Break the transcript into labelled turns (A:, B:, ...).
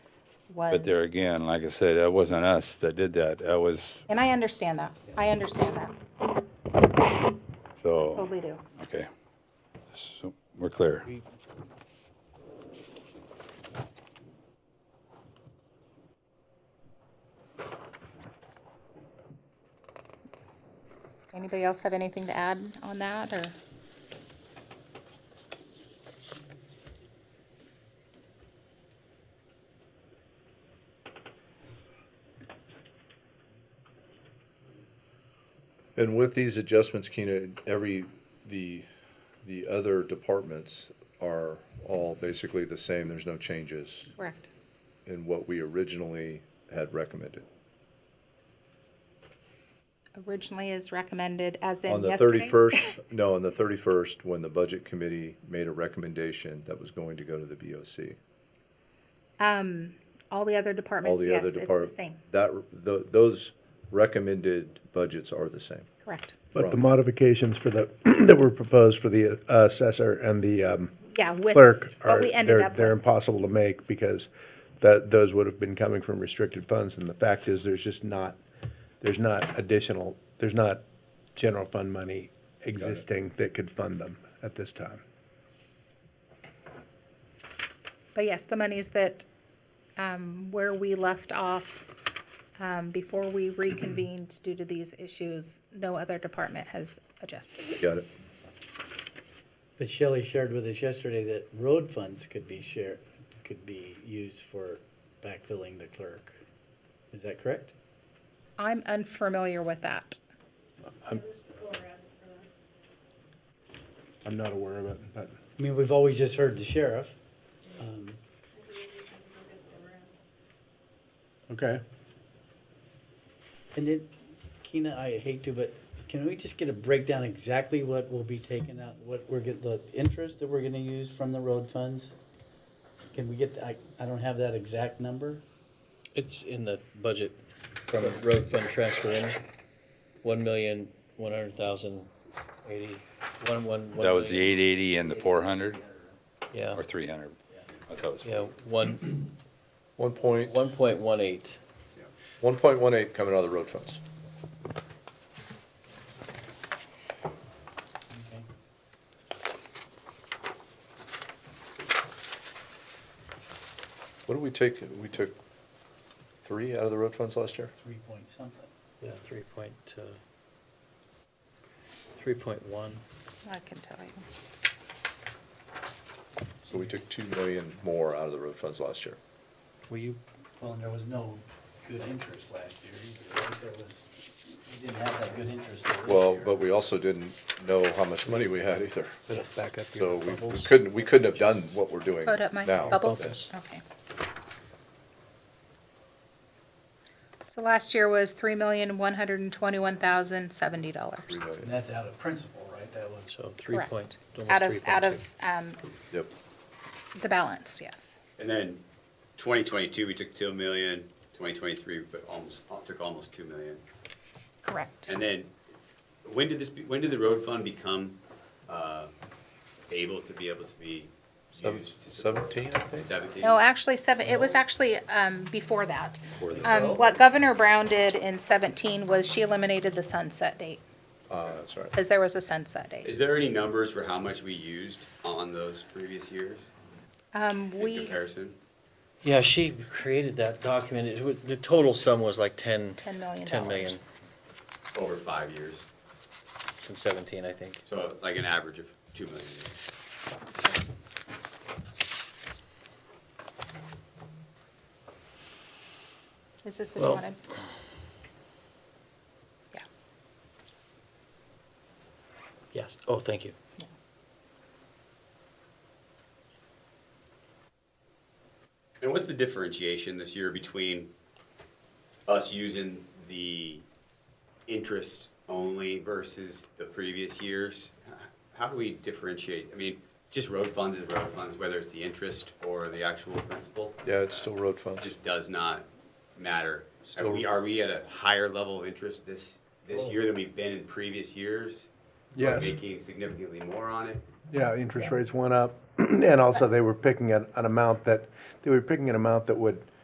A: was.
B: But there again, like I said, that wasn't us that did that. That was,
A: And I understand that. I understand that.
B: so,
A: Totally do.
B: okay. So we're clear.
A: Anybody else have anything to add on that or?
C: And with these adjustments, Keena, every, the, the other departments are all basically the same. There's no changes
A: Correct.
C: in what we originally had recommended.
A: Originally is recommended as in
C: On the
A: yesterday.
C: thirty-first, no, on the thirty-first, when the budget committee made a recommendation that was going to go to the BOC.
A: All the other
C: All
A: departments,
C: the other
A: yes, it's the
C: departments.
A: same.
C: That, tho- those recommended budgets are the same.
A: Correct.
D: But the modifications for the, that were proposed for the uh, assessor and the um,
A: Yeah, with
D: clerk
A: what
D: are,
A: we ended
D: they're,
A: up
D: they're
A: with.
D: impossible to make because that, those would have been coming from restricted funds. And the fact is, there's just not, there's not additional, there's not general fund money existing that could fund them at this time.
A: But yes, the monies that, um, where we left off, um, before we reconvened due to these issues, no other department has adjusted.
C: Got it?
E: But Shelley shared with us yesterday that road funds could be shared, could be used for backfilling the clerk. Is that correct?
A: I'm unfamiliar with that.
D: I'm not aware of it, but
E: I mean, we've always just heard the sheriff. um,
D: okay.
E: And then, Keena, I hate to, but can we just get a breakdown exactly what will be taken out, what we're get, the interest that we're gonna use from the road funds? Can we get, I, I don't have that exact number.
F: It's in the budget from a road fund transfer in, one million, one hundred thousand, eighty, one, one, one.
B: That was the
F: million.
B: eight eighty and the four hundred
F: Yeah,
B: or three hundred? I thought it was.
F: yeah, one,
C: One point,
F: one point one eight.
C: one point one eight coming out of the road funds.
E: Okay.
C: What did we take? We took three out of the road funds last year?
E: Three point something.
F: Yeah, three point, uh, three point one.
A: I can tell you.
C: So we took two million more out of the road funds last year.
F: Will you?
E: Well, and there was no good interest last year either. right? There was, we didn't have that good interest this year.
C: Well, but we also didn't know how much money we had either.
F: Back up
C: So we we couldn't, we couldn't have done what we're doing now.
A: Hold up my bubbles. Okay. So last year was three million, one hundred and twenty-one thousand, seventy
C: Three
A: dollars.
E: And
C: million,
E: that's out of principle, right? That was.
F: So three
A: Correct.
F: point,
A: Out
F: almost three
A: of, out
F: point
A: of,
F: two.
A: um,
C: yep.
A: the balance, yes.
G: And then twenty twenty-two, we took two million, twenty twenty-three, we put almost, took almost two million.
A: Correct.
G: And then, when did this, be- when did the road fund become, uh, able to be able to be used to support?
C: Seventeen, I think?
G: Seventeen?
A: No, actually seven, it was actually, um, before that. Um, what Governor Brown did in seventeen was she eliminated the sunset date,
C: Uh, that's right.
A: because there was a sunset date.
G: Is there any numbers for how much we used on those previous years
A: Um,
G: in
A: we,
G: comparison?
F: Yeah, she created that document. It wa- The total sum was like ten.
A: ten million
F: Ten million
A: dollars.
G: Over five years,
F: since seventeen, I think.
G: so like an average of two million. a year.
A: Is this what you
F: Well-
A: wanted? Yeah.
F: Yes. Oh, thank you.
G: And what's the differentiation this year between us using the interest only versus the previous years? How do we differentiate? I mean, just road funds is road funds, whether it's the interest or the actual principal,
C: Yeah, it's still road
G: it
C: funds.
G: just does not matter. Are we, are we at a higher level of interest this, this year than we've been in previous years? Are
D: Yes.
G: we Making significantly more on it?
D: Yeah, interest rates went up, and also they were picking an, an amount that, they were picking an amount that would